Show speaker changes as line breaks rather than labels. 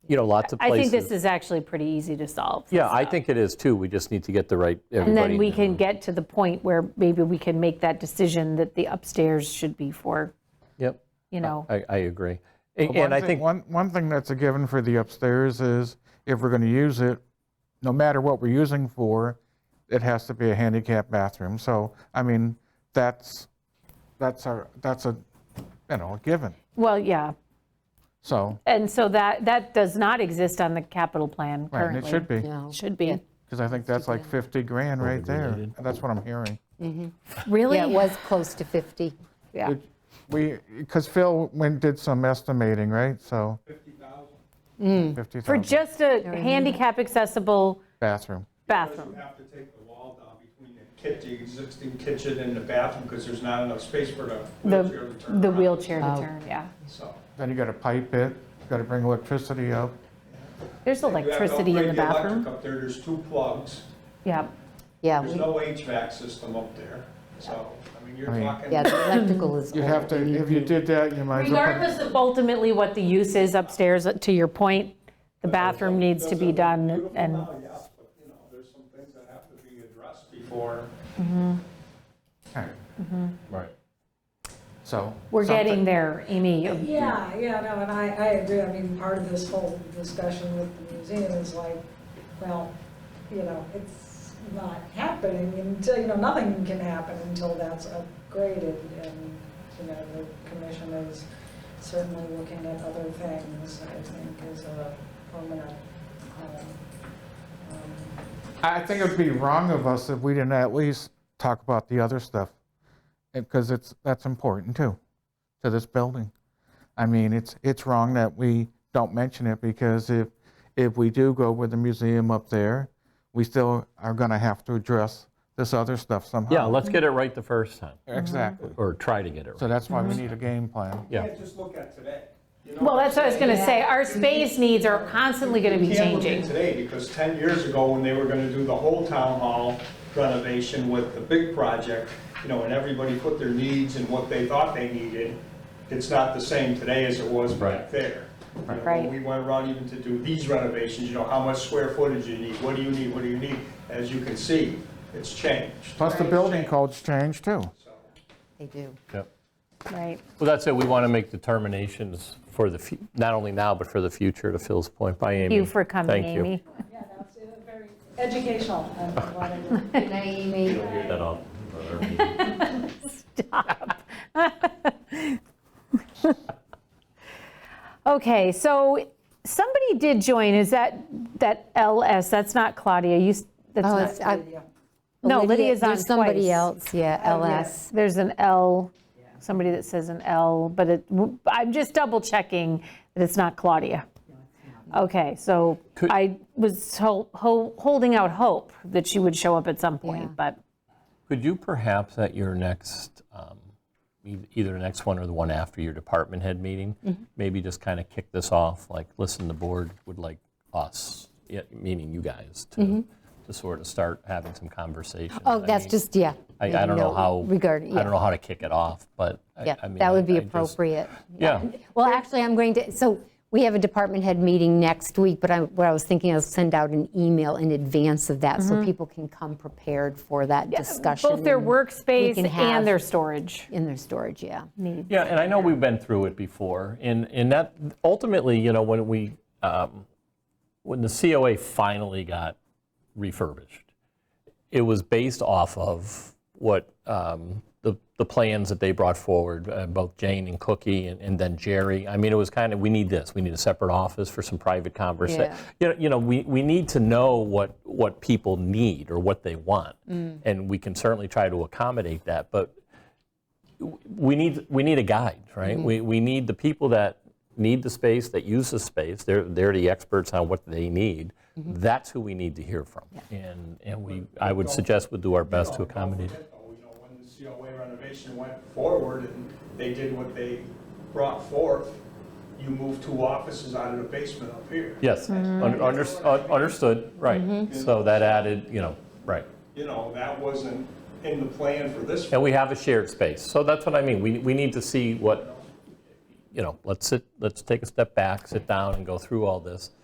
you know, lots of
I
places.
think this is actually pretty easy to solve.
Yeah, I think it is too. We just need to get the right,
And
everybody.
then we can get to the point where maybe we can make that decision that the upstairs should be for,
Yep,
you know,
I, I agree. And
One
and I
thing-
think,
One, one thing that's a given for the upstairs is if we're going to use it, no matter what we're using for, it has to be a handicap bathroom. So, I mean, that's, that's our, that's a, you know, a given.
well, yeah.
So,
And so that, that does not exist on the capital plan
right, and
currently.
it should be,
No.
Should be.
because I think that's like 50 grand right there. That's what I'm hearing.
Really? Yeah, it was close to 50. Yeah.
It- We, because Phil went, did some estimating, right? So. 50,000.
Mm. For
50,000
just a handicap accessible
bathroom.
Because
bathroom.
you have to take the wall down between the kitchen, existing kitchen and the bathroom, because there's not enough space for the wheelchair
The,
to turn around.
the wheelchair to turn, yeah.
So,
Then you got to pipe it, you got to bring electricity up.
There's
you have to
electricity in the
upgrade electric
bathroom.
Up there, there's two plugs,
Yeah.
Yeah,
there's
we-
no HVAC system up there, so, I mean, you're
I mean-
talking.
yeah, the electrical is
You'd have
old.
to, if you did that, you might as well. put-
Regardless of ultimately what the use is upstairs, to your point, the bathroom needs to be done
Beautiful
and,
now, yes, Oh, but, you know, there's some things that have to be addressed before.
Right.
right.
So.
we're
something-
getting there, Amy.
Yeah, yeah, no, and I, I agree. I mean, part of this whole discussion with the museum is like, well, you know, it's not happening until, you know, nothing can happen until that's upgraded. And, you know, the commission is certainly looking at other things, I think, as a permanent, um, um,
I think it'd be wrong of us if we didn't at least talk about the other stuff, because it's, that's important too, to this building. I mean, it's, it's wrong that we don't mention it, because if, if we do go with the museum up there, we still are gonna have to address this other stuff somehow.
Yeah, let's get it right the first time,
Exactly.
or try to get it
uh, So
right.
that's why
Mm-hmm.
we need a game plan.
Yeah.
You can't just look at today. you know
Well,
I'm
that's what I was
saying?
going to say. Our space needs are constantly going to be
You can't look at
changing.
Today, because 10 years ago, when they were going to do the whole town hall renovation with the big project, you know, and everybody put their needs and what they thought they needed, it's not the same today as it was
Right.
back there. You know,
Right.
When we went around even to do these renovations, you know, how much square footage you need, what do you need, what do you need? As you can see, it's changed.
Plus, the building codes change too.
They do.
Yep.
Right.
Well, that's it. We want to make determinations for the, fu- not only now, but for the future, to Phil's point, by Amy.
Thank you for coming,
Thank you.
Amy.
yeah, that's uh, very educational. and whatever.
Good night, Amy.
That all-
Okay, so somebody did join. Is that, that LS? That's not Claudia. You, s-
Oh,
that's
it's,
not,
I-
no, Lydia's on
There's somebody
twice.
else, Oh, yeah, LS.
There's an L, somebody that says an L, but it, I'm just double checking that it's not Claudia. Okay, so
Could-
I was ho- ho- holding out hope that she would show up at some point,
Yeah.
but
Could you perhaps at your next, um, e- either the next one or the one after your department head meeting,
Mm-hmm.
maybe just kind of kick this off, like, listen, the board would like us, yeah, meaning you guys, to, to sort of start having some conversation.
Mm-hmm. Oh,
I
that's
mean,
just, yeah.
I
maybe
I don't know
no
how,
Regard,
I don't
yeah,
know how to kick it off, but I
yeah,
I mean.
that
I-
would be
I just-
appropriate.
Yeah,
Well, actually, I'm going to, so we have a department head meeting next week, but I, what I was thinking, I'll send out an email in advance of that so people can come prepared for that discussion.
both their
and-
workspace
can have-
and their storage.
In their storage, yeah.
Yeah, and I know we've been through it before, and, and that, ultimately, you know, when we, um, when the COA finally got refurbished, it was based off of what, um, the, the plans that they brought forward, uh, both Jane and Cookie, and and then Jerry. I mean, it was kind of, we need this, we need a separate office for some private conversation.
Yeah.
You know, you know, we, we need to know what, what people need or what they want, and we can certainly try to accommodate that, but we need we need a guide, right? We, we need the people that need the space, that use the space. They're they're the experts on what they need. That's who we need to hear from. And and we I would suggest we do our best to
Don't
accommodate.
forget, though, You Oh, know, when the COA renovation went forward and they did what they brought forth, you moved two offices out of the basement up here.
Yes, un- under, un- understood. Right. So that added, you know, right.
You know, that wasn't in the plan for this.
And we have a shared space. So that's what I mean. We we need to see what, you know. Let's sit. Let's take a step back, sit down, and go through all this.